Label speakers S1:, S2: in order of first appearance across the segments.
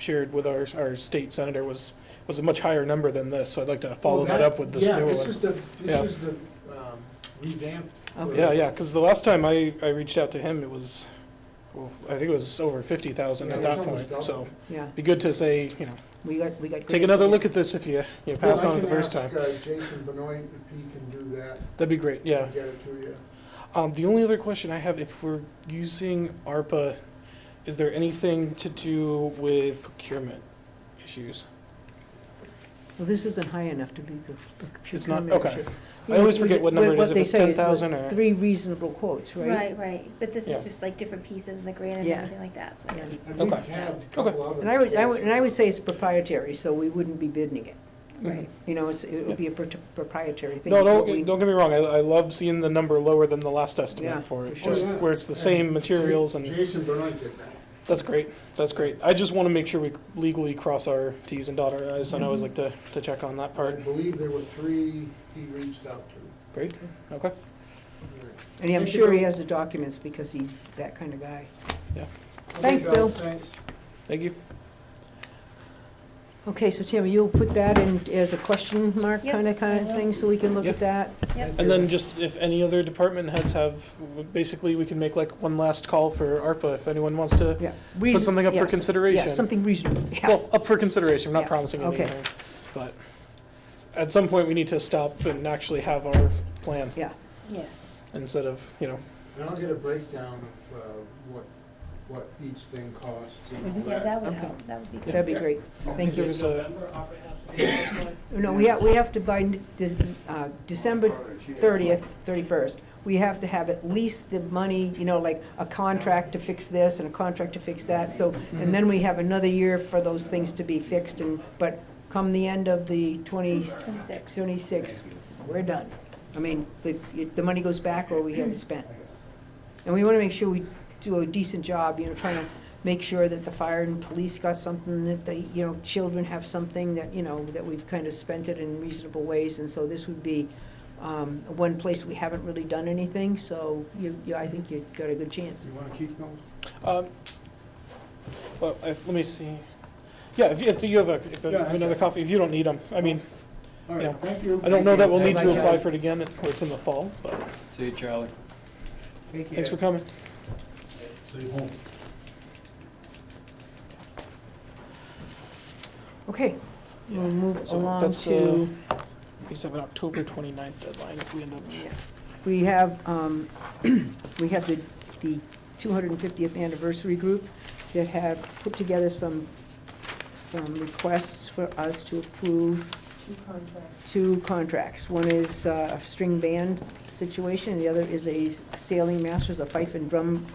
S1: shared with our, our state senator was, was a much higher number than this, so I'd like to follow
S2: Well,
S1: that up with this
S2: yeah,
S1: new
S2: This
S1: one.
S2: is the,
S1: Yeah.
S2: this is the um, revamped.
S3: Okay.
S1: Yeah, yeah, because the last time I, I reached out to him, it was, well, I think it was over fifty thousand at
S2: Yeah, it
S1: that
S2: was almost
S1: point, so.
S2: double.
S3: Yeah,
S1: Be good to say, you know,
S3: we got, we got.
S1: take another look at this if you, you pass on it the first time.
S2: Well, I can ask, uh, Jason Benoit if he can do that.
S1: That'd be great,
S2: and
S1: yeah.
S2: Get it to you.
S1: Um, the only other question I have, if we're using ARPA, is there anything to do with procurement issues?
S3: Well, this isn't high enough to be the
S1: It's not-
S3: procurement
S1: okay.
S3: issue.
S1: I always
S3: Yeah,
S1: forget
S3: we-
S1: what number it is, if
S3: they
S1: it's
S3: say is
S1: 10,000 or-
S3: Three reasonable quotes, right?
S4: Right, right, but this
S1: Yeah.
S4: is just like different pieces in the grant and
S3: Yeah.
S4: everything like that, so.
S3: Yeah.
S2: And
S1: Okay.
S2: we've had a couple other
S3: And I would, I would, and I would
S2: quotes.
S3: say it's proprietary, so we wouldn't be bidding it.
S1: Right.
S3: You know, it's, it would be a pro- proprietary thing.
S1: No,
S3: but
S1: don't,
S3: we-
S1: don't get me wrong, I, I love seeing the number lower than the last
S3: Yeah,
S1: estimate for it,
S3: for
S1: just
S2: sure.
S1: where it's the same materials and,
S2: Jason Benoit did that.
S1: that's great, that's great. I just wanna make sure we legally cross our Ts and dot our Is, and I always like to, to check on that
S2: I
S1: part.
S2: believe there were three he reached out to.
S1: Great, okay.
S3: And I'm sure he has the documents because he's that kind of guy. Thanks,
S2: Okay, uh,
S3: Bill.
S2: Thanks.
S1: Thank you.
S3: Okay, so Tim, you'll put that in as a question mark
S4: Yep,
S3: kind of, kind of
S4: I will.
S3: thing, so we can look
S1: Yep.
S3: at that?
S4: Yep.
S1: And then just if any other department heads have, basically, we can make like one last call for ARPA if anyone wants to
S3: Yeah.
S1: put
S3: Reason-
S1: something up for
S3: yes, Yeah,
S1: consideration.
S3: something reasonable, yeah.
S1: Well, up for consideration, I'm not
S3: Yeah,
S1: promising
S3: okay.
S1: anything, but at some point, we need to stop and actually have our plan
S4: Yes.
S1: instead of, you know,
S2: And I'll get a breakdown of uh, what, what each thing costs and all
S4: Yeah,
S2: that.
S4: that would
S3: Okay.
S4: help, that would be good.
S3: That'd be great, thank
S1: there
S3: you.
S1: was a,
S3: Uh, No, we have, we have to by De- uh, December thirtieth, thirty-first, we have to have at least the money, you know, like a contract to fix this and a contract to fix that, so, and then we have another year for those things to be fixed and, but come the end of the twenty,
S4: Twenty-six.
S3: twenty-six, we're done. I mean, the, the money goes back or we have it spent. And we wanna make sure we do a decent job, you know, trying to make sure that the fire and police got something, that the, you know, children have something, that, you know, that we've kind of spent it in reasonable ways, and so this would be um, one place we haven't really done anything, so you, you, I think you've got a good chance.
S2: You want to keep those?
S1: um, well, I- let me see. Yeah, if you, if you have a, if you
S2: Yeah,
S1: have another
S2: okay.
S1: copy, if you don't need them, I mean,
S2: All
S1: Yeah.
S2: right, thank you.
S1: I don't know that we'll need
S3: Thank you.
S1: to apply for it again, if it's in the fall, but
S5: See you, Charlie.
S2: Take
S1: thanks for
S2: care.
S1: coming.
S3: Okay, we'll move
S1: So
S3: along
S1: that's, uh,
S3: to,
S1: We just have an October 29th deadline if we end up.
S3: we have, um, we have the, the 250th anniversary group that have put together some, some requests for us to approve
S6: Two contracts.
S3: two contracts. One is uh, a string band situation, and the other is a sailing masters, a fife and drum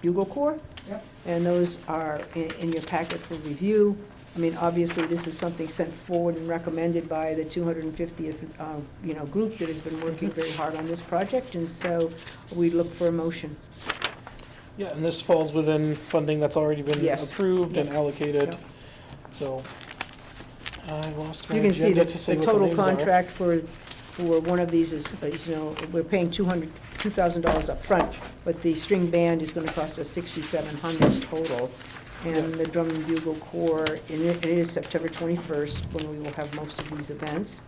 S3: bugle corps.
S6: Yep.
S3: And those are in in your packet for review. I mean, obviously, this is something sent forward and recommended by the 250th, uh, you know, group that has been working very hard on this project, and so we look for a motion.
S1: Yeah, and this falls within funding that's already been
S3: Yes.
S1: approved and allocated,
S3: Yep.
S1: so. I lost my
S3: You can see
S1: agenda
S3: that
S1: to say
S3: the
S1: what the
S3: total
S1: names are.
S3: contract for, for one of these is, is, you know, we're paying two hundred, two thousand dollars upfront, but the string band is gonna cost us sixty-seven hundred total. And the drum and bugle corps, and it it is September twenty-first, when we will have most of these events.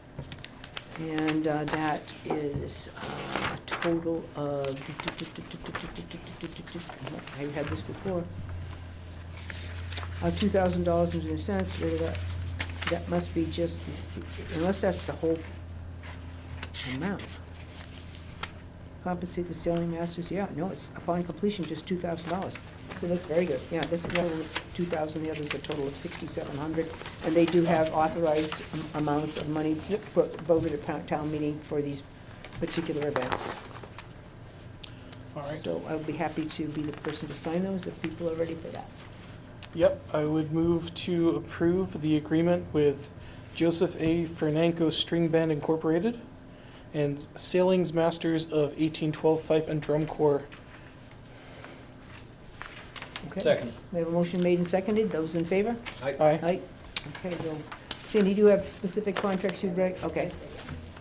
S3: And uh, that is uh, a total of, I had this before. Uh, two thousand dollars and two cents, wait a minute. That must be just, the st- unless that's the whole amount. Compensate the sailing masters, yeah, no, it's upon completion, just two thousand dollars. So that's very good, yeah, that's a total of two thousand, the other's a total of sixty-seven hundred. And they do have authorized am- amounts of money vo- voted at pow- town meeting for these particular events.
S1: All right,
S3: So I would be happy to be the person to sign those if people are ready for that.
S1: yep, I would move to approve the agreement with Joseph A. Fernanco String Band Incorporated and Sailings Masters of 1812 Fife and Drum Corps.
S3: Okay?
S5: Second.
S3: We have a motion made and seconded, those in favor?
S1: Aye.
S3: Aye. Okay, well, Cindy, you do have specific contracts you'd write, okay.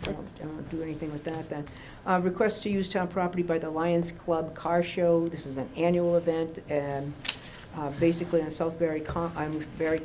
S3: I won't- I won't do anything with that then. Uh, Request to use town property by the Lions Club Car Show. This is an annual event, and uh, basically on Southbury, Con- on Barry